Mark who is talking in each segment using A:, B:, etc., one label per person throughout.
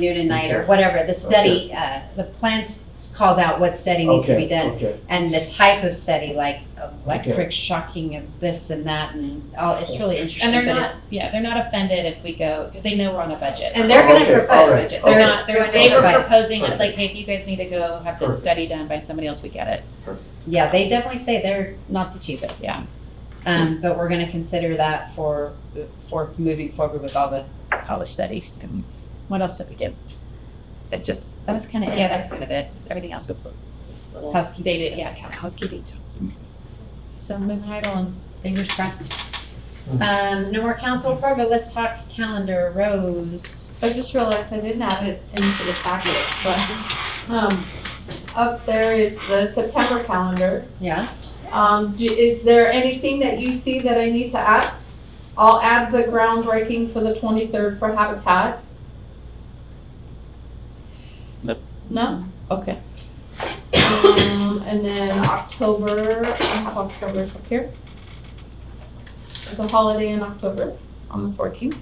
A: noon and night or whatever. The study, uh, the plan s- calls out what study needs to be
B: Okay,
A: done
B: okay.
A: and the type of study, like electric shocking of this and that and all, it's really interesting.
C: And they're
A: but
C: not,
A: it's-
C: yeah, they're not offended if we go, because they know we're on a budget.
A: And they're gonna
B: Okay, all
A: propose.
B: right.
C: They're not, they're, they were proposing, it's like,
B: Perfect.
C: hey, if you guys need to go have this
B: Perfect.
C: study done by somebody else, we get it.
A: Yeah, they definitely say they're not the cheapest.
C: Yeah.
A: Um, but we're gonna consider that for, for moving forward with all the
C: College studies, um, what else did we do? That just, that was kind of, yeah, that's kind of it. Everything else was little
A: Housekeeping.
C: dated, yeah, kind of housekeeping. So moving right along,
A: fingers crossed. Um, no more council report, but let's talk calendar, Rose.
D: I just realized I didn't add it into the packet, but, um, up there is the September calendar.
A: Yeah,
D: Um, do, is there anything that you see that I need to add? I'll add the groundbreaking for the twenty-third for Habitat.
E: Nope.
D: No?
C: okay.
D: Um, and then October, I have October's up here. There's a holiday in October on the fourteenth.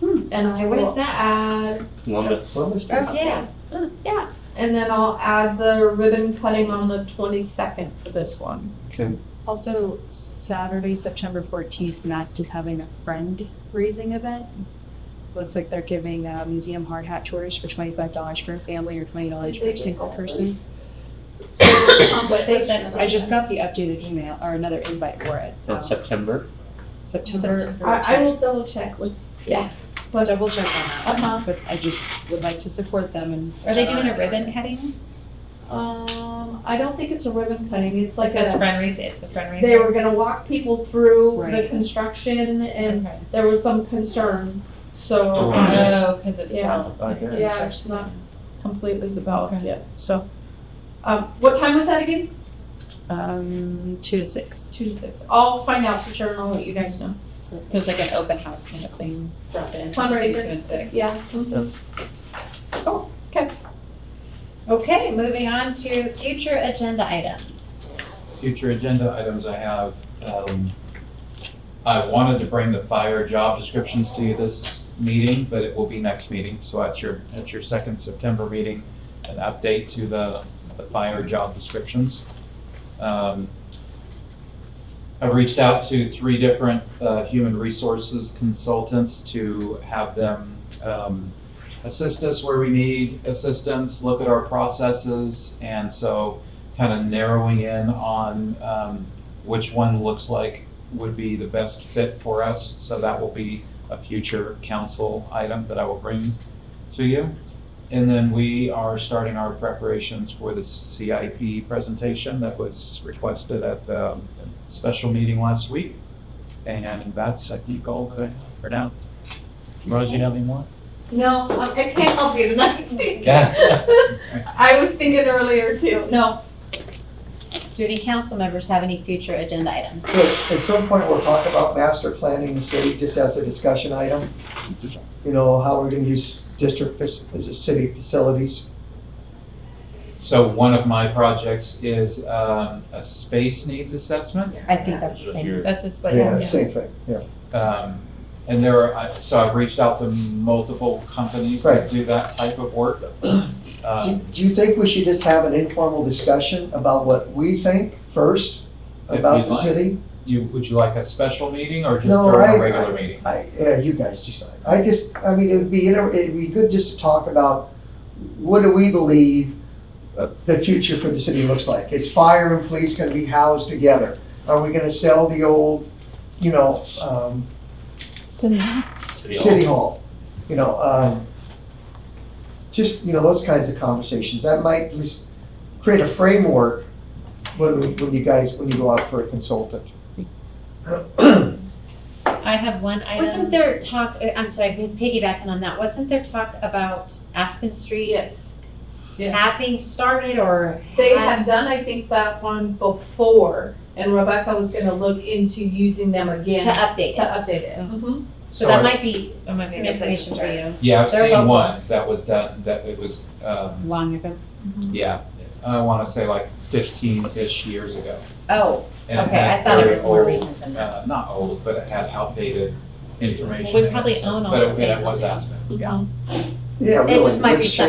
A: Hmm.
D: And I
A: What is
D: will
A: that?
D: add
E: Columbus.
A: oh, yeah.
D: Yeah, and then I'll add the ribbon cutting on the twenty-second for this one.
F: Also, Saturday, September 14th, Mac is having a friend raising event. Looks like they're giving uh, museum hard hat tours for $25 for a family or $20 for a single person. I just got the updated email or another invite for it.
E: In
F: So
E: September.
F: September.
D: I, I will double check with, yeah.
F: I'll double check on that.
D: Uh-huh.
F: one, But I just would like to support them and. uh,
C: Are they doing a ribbon cutting?
D: Um, I don't think it's a ribbon cutting, it's like
C: Like this
D: a,
C: fundraiser, it's the fundraiser.
D: they were gonna walk people through the
F: Right.
D: construction and
C: Okay.
D: there was some concern, so. uh,
C: Oh, because it's
D: Yeah.
C: all.
B: I guess.
D: Yeah, it's not completely developed
C: Okay.
D: yet, so. Um, what time was that again?
F: Um, two to six.
D: Two to six. I'll find out for sure and I'll let you guys know.
C: So it's like an open house kind of thing. Drop in.
D: Fundraiser.
C: Two and six.
D: Yeah. mhm. Cool, okay.
A: Okay, moving on to future agenda items.
G: future agenda items I have. um, I wanted to bring the fire job descriptions to you this meeting, but it will be next meeting. So at your, at your second September meeting, an update to the, the fire job descriptions. Um, I've reached out to three different uh, human resources consultants to have them um, assist us where we need assistance, look at our processes. And so kind of narrowing in on um, which one looks like would be the best fit for us. So that will be a future council item that I will bring to you. And then we are starting our preparations for the CIP presentation that was requested at the um, special meeting last week. And that's, I think, all that I have for now. Rose, you have any more?
D: No, I I can't help you tonight.
G: Yeah.
D: I was thinking earlier too. No,
A: Do any council members have any future agenda items?
B: So it's- at some point, we'll talk about master planning the city, just as a discussion item. You know, how we're gonna use district, fac- city facilities.
G: So one of my projects is um, a space needs assessment.
A: I think that's the same.
C: That's just what.
B: Yeah, same thing, yeah.
G: Um, And there are, I- so I've reached out to multiple companies
B: Right.
G: that do that type of work.
B: Do
G: Um,
B: do you think we should just have an informal discussion about what we think first
G: If
B: about
G: you'd
B: the
G: like.
B: city?
G: You, would you like a special meeting or just
B: No,
G: during
B: I-
G: a regular meeting?
B: I, yeah, you guys decide. I just, I mean, it'd be, inter- it'd be good just to talk about what do we believe uh, the future for the city looks like? Is fire and police gonna be housed together? Are we gonna sell the old, you know, um, City Hall, you know, um, just, you know, those kinds of conversations, that might just create a framework when, we- when you guys, when you go out for a consultant.
C: I have one item.
A: Wasn't there talk, uh, I'm sorry, I'm piggybacking on that, wasn't there talk about Aspen Street
D: yes.
A: having started or?
D: They had
A: has-
D: done, I think, that one before and Rebecca was gonna look into using them
A: To
D: again to
A: update it.
D: update it. Mhm.
A: So that
G: I-
A: might be
C: That might be a
A: some
C: good place to
A: information for
C: start.
A: you.
G: Yeah, I've
A: They're
G: seen
A: local.
G: one that was done, that it was, um,
F: Long event.
C: Mm-hmm.
G: yeah, I want to say like fifteen-ish years ago.
A: Oh,
G: And
A: okay,
G: had
A: I thought it
G: very
A: was more
G: old,
A: recent than that.
G: uh, Not old, but it had outdated information.
C: We
G: in it.
C: probably own all
G: But
C: the
G: it- yeah,
C: same
G: it was
C: buildings.
G: Aspen, yeah.
H: Yeah,
B: It
H: really.
B: just might be
H: let's
B: something